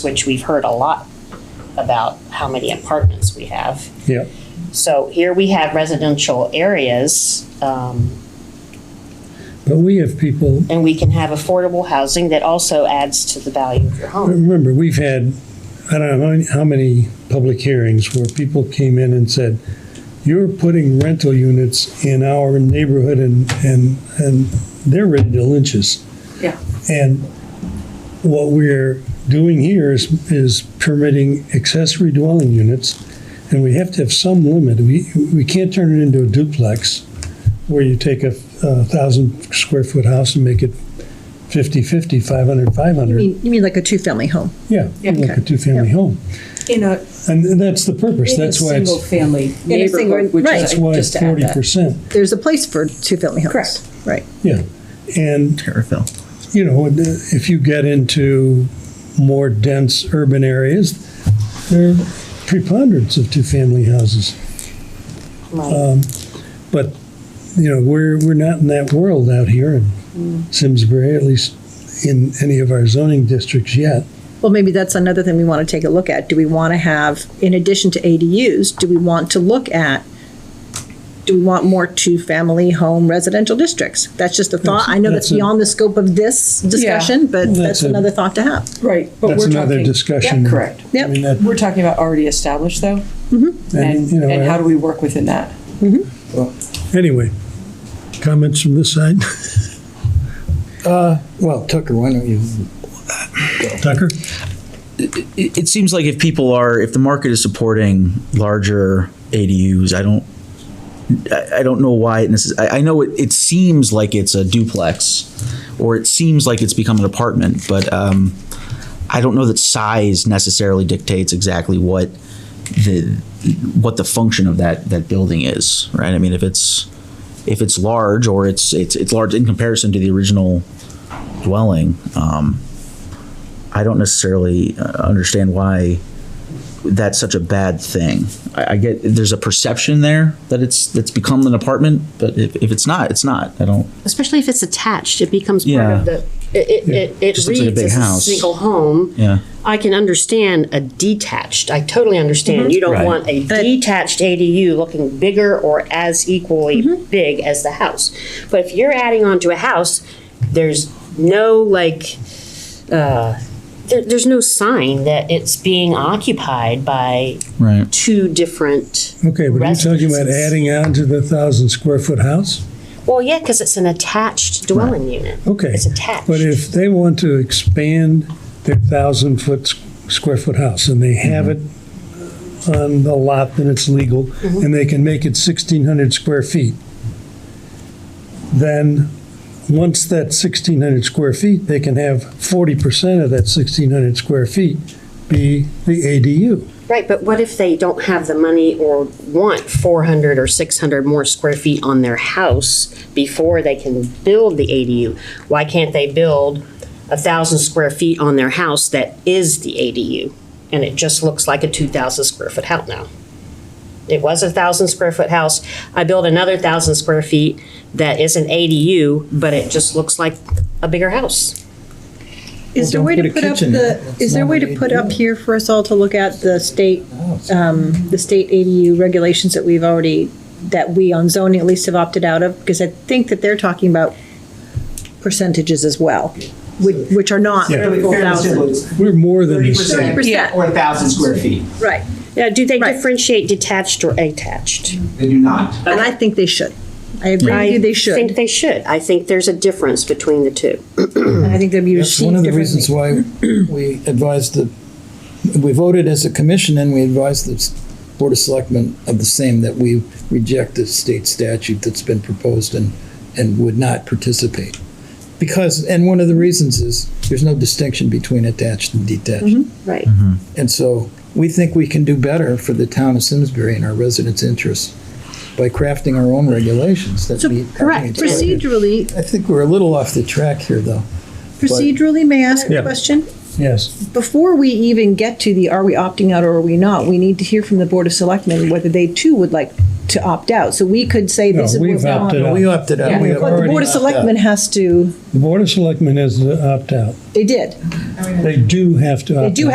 which we've heard a lot about how many apartments we have. Yeah, So here we have residential areas, um, but we have people, and we can have affordable housing that also adds to the value of your home. remember, we've had, I don't know how many- how many public hearings where people came in and said, you're putting rental units in our neighborhood and, and, and they're ready to lynch us. Yeah. And what we're doing here is, is permitting accessory dwelling units, and we have to have some limit. We, we can't turn it into a duplex where you take a thousand square foot house and make it 50, 50, 500, 500. You mean, you mean like a two-family home? Yeah, Yeah. like a two-family home. In a, And and that's the purpose, in a that's why single it's, family In a single- neighborhood, which right. is, that's why just it's to add forty that. percent, There's a place for two-family homes. Correct. Right. yeah. And, Terrifil. you know, uh, if you get into more dense urban areas, there are preponderance of two-family houses. Um, Right. But, you know, we're, we're not in that world out here in Mm. Simsbury, at least in any of our zoning districts yet. Well, maybe that's another thing we want to take a look at. Do we want to have, in addition to ADUs, do we want to look at, do we want more two-family home residential districts? That's just a thought. I know that's That's a- beyond the scope of this discussion, but That's that's a- another thought to have. Right, but That's we're another talking. discussion. Yeah, Correct. I mean, Yep, that- We're talking about already established though, and, and, you know, and how do we work within that? Anyway, comments from this side? Well, Tucker, why don't you? Tucker? It, it seems like if people are, if the market is supporting larger ADUs, I don't, I, I don't know why it necess- I, I know it, it seems like it's a duplex or it seems like it's become an apartment, but, um, I don't know that size necessarily dictates exactly what the, what the function of that, that building is, right? I mean, if it's, if it's large or it's, it's, it's large in comparison to the original dwelling, um, I don't necessarily uh, understand why that's such a bad thing. I, I get there's a perception there that it's that's become an apartment, but if, if it's not, it's not. I don't. Especially if it's attached, it becomes part Yeah. of the, it, it, it it Just looks like a reads big as a house. single home. Yeah. I can understand a detached, I totally Mm-hmm. understand, you don't Right. want a detached ADU looking bigger or as equally big as the house. But if you're adding on to a house, there's no like, uh, there, there's no sign that it's being occupied by Right. two different. Okay, but are you talking about residences. adding on to the thousand square foot house? Well, yeah, because it's an attached dwelling unit. Okay. It's attached. But if they want to expand their thousand foot, s- square foot house and they have it on the lot, then it's legal, Mm-hmm. and they can make it sixteen hundred square feet. Then, once that sixteen hundred square feet, they can have forty percent of that sixteen hundred square feet be the ADU. Right, but what if they don't have the money or want 400 or 600 more square feet on their house before they can build the ADU? Why can't they build a 1,000 square feet on their house that is the ADU? And it just looks like a 2,000 square foot house now. It was a 1,000 square foot house. I built another 1,000 square feet that is an ADU, but it just looks like a bigger house. Is there a Well, way don't to put a put up kitchen in the, it. That's is there a not way an to put up ADU. here for us all to look at the state, Oh, um, the state ADU regulations that we've already, that we on zoning at least have opted out of? Because I think that they're talking about percentages as well, which, which are not the Fairly full fairly simple. thousand. It's We're more than Thirty the same. percent 30%. or a thousand square feet. Right. Now, do they Right. differentiate detached or attached? They do not. And I think they should. I agree with you, they I think should. they should. I think there's a difference between the two. And I think they'd be Mm. That's one of received the reasons differently. why we advised the, we voted as a commission and we advised the s- Board of Selectmen of the same, that we reject the state statute that's been proposed and, and would not participate. Because, and one of the reasons is, there's no distinction between attached and detached. Right. And so we think we can do better for the town of Simsbury and our residents' interests by crafting our own regulations that So, meet. our correct. needs. Procedurally, I think we're a little off the track here, though. procedurally, may I ask Yeah. a question? Yes, Before we even get to the are we opting out or are we not, we need to hear from the Board of Selectmen whether they too would like to opt out. So we could say No, this is we've what's opted on. out. We opted out. Yeah. We But the already Board of opted out. Selectmen has to, the Board of Selectmen has to opt out. they did. They do have to opt out. They do